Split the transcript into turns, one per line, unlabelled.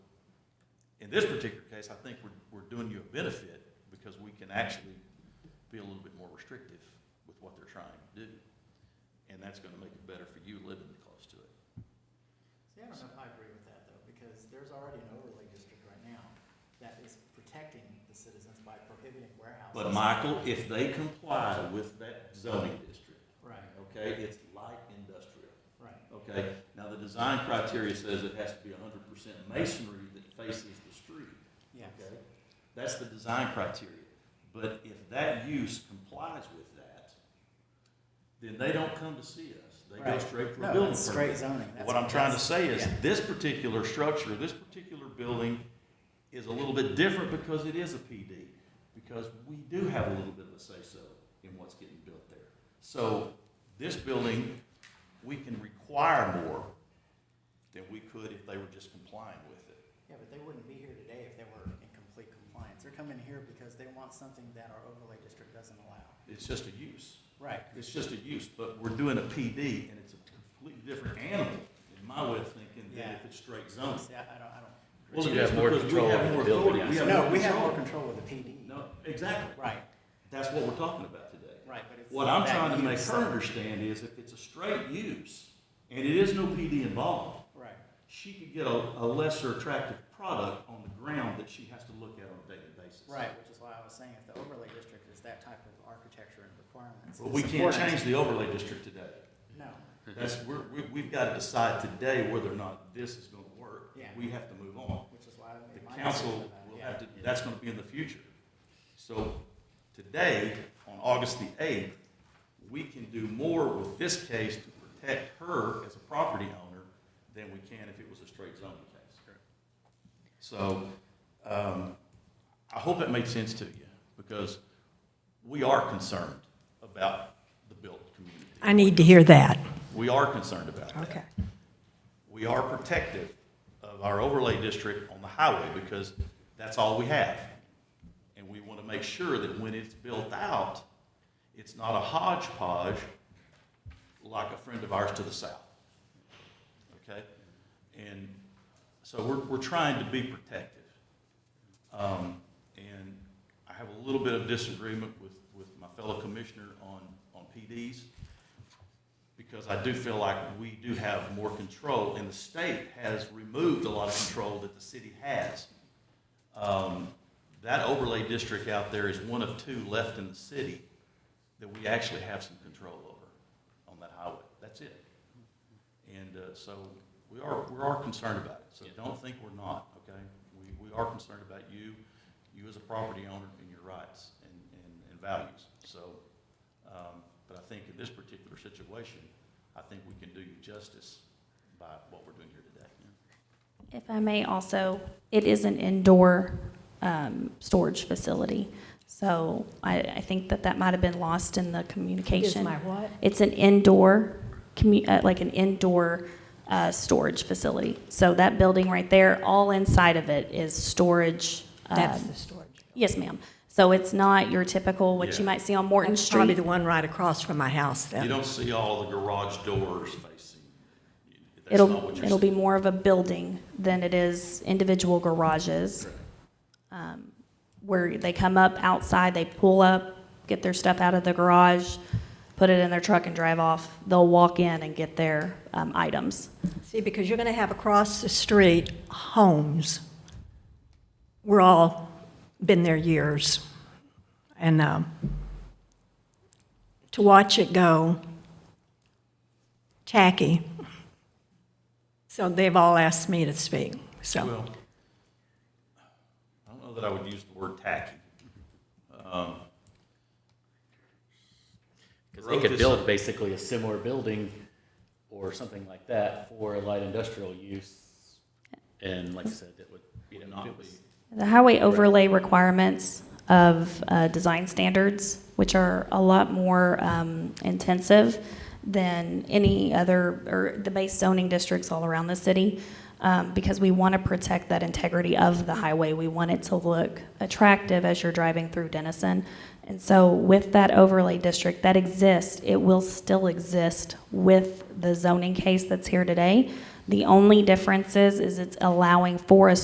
this particular case, I think we're, we're doing you a benefit because we can actually be a little bit more restrictive with what they're trying to do. And that's gonna make it better for you living close to it.
See, I don't know if I agree with that though, because there's already an overlay district right now that is protecting the citizens by prohibiting warehouses.
But Michael, if they comply with that zoning district,
Right,
okay, it's light industrial.
right.
Okay, now the design criteria says it has to be hundred percent masonry that faces the street,
Yeah.
okay? That's the design criteria. But if that use complies with that, then they don't come to see us. They go
Right.
straight for a
No,
building
it's straight
permit.
zoning.
What I'm trying to say is,
Yeah.
this particular structure, this particular building is a little bit different because it is a PD. Because we do have a little bit of a say-so in what's getting built there. So this building, we can require more than we could if they were just complying with it.
Yeah, but they wouldn't be here today if they were in complete compliance. They're coming here because they want something that our overlay district doesn't allow.
It's just a use.
Right.
It's just a use, but we're doing a PD and it's a completely different animal, in my way of thinking, than if it's straight zoning.
See, I I don't, I don't.
Well, it
You'd
is
have more
because we
control
have
over the
more authority.
building, I
We have
No,
more
we have more
control.
control with the PD.
No, exactly.
Right,
That's what we're talking about today.
right, but it's.
What I'm
that
trying to make
use.
her understand is if it's a straight use and it is no PD involved,
Right,
she could get a, a lesser attractive product on the ground that she has to look at on a daily basis.
right, which is why I was saying if the overlay district is that type of architecture and requirements.
But we
it's
can't
important.
change the overlay district today.
No,
That's, we're, we, we've got to decide today whether or not this is gonna work.
Yeah.
We have to move on.
which is why I
The
made my decision
council
about it,
will
yeah.
have to, that's gonna be in the future. So today, on August the eighth, we can do more with this case to protect her as a property owner than we can if it was a straight zoning case. So, um, I hope that made sense to you, because we are concerned about the built community.
I need to hear that.
We are concerned about that
Okay.
we are protective of our overlay district on the highway because that's all we have. And we want to make sure that when it's built out, it's not a hodgepodge like a friend of ours to the south. Okay? And so we're, we're trying to be protective. Um, and I have a little bit of disagreement with, with my fellow commissioner on, on PDs because I do feel like we do have more control, and the state has removed a lot of control that the city has. Um, That overlay district out there is one of two left in the city that we actually have some control over on that highway. That's it. And uh, so we are, we are concerned about it, so don't think we're not, okay? We, we are concerned about you, you as a property owner and your rights and, and- and values, so. Um, But I think in this particular situation, I think we can do you justice by what we're doing here today.
If I may also, it is an indoor um, storage facility, so I, I think that that might have been lost in the
Is
communication.
my what?
It's an indoor, commu- uh, like an indoor uh, storage facility. So that building right there, all inside of it is storage. um,
That's the storage.
Yes, ma'am. So it's not your typical, what
Yeah.
you might see on Morton
That's probably
Street.
the one right across from my house
You
then.
don't see all the garage doors facing, that's not
It'll,
what you're
it'll be
seeing.
more of a building than it is individual garages. um, Where they come up outside, they pull up, get their stuff out of the garage, put it in their truck and drive off. They'll walk in and get their um, items.
See, because you're going to have across the street homes. We're all been there years. And um, to watch it go tacky. So they've all asked me to speak, so.
Well, I don't know that I would use the word tacky. Um,
Because they could build basically a similar building or something like that for light industrial use. And like I said, it would, you know, if it was-
The highway overlay requirements of uh, design standards, which are a lot more um, intensive than any other, or the base zoning districts all around the city, um, because we want to protect that integrity of the highway. We want it to look attractive as you're driving through Denison. And so with that overlay district that exists, it will still exist with the zoning case that's here today. The only difference is, is it's allowing for a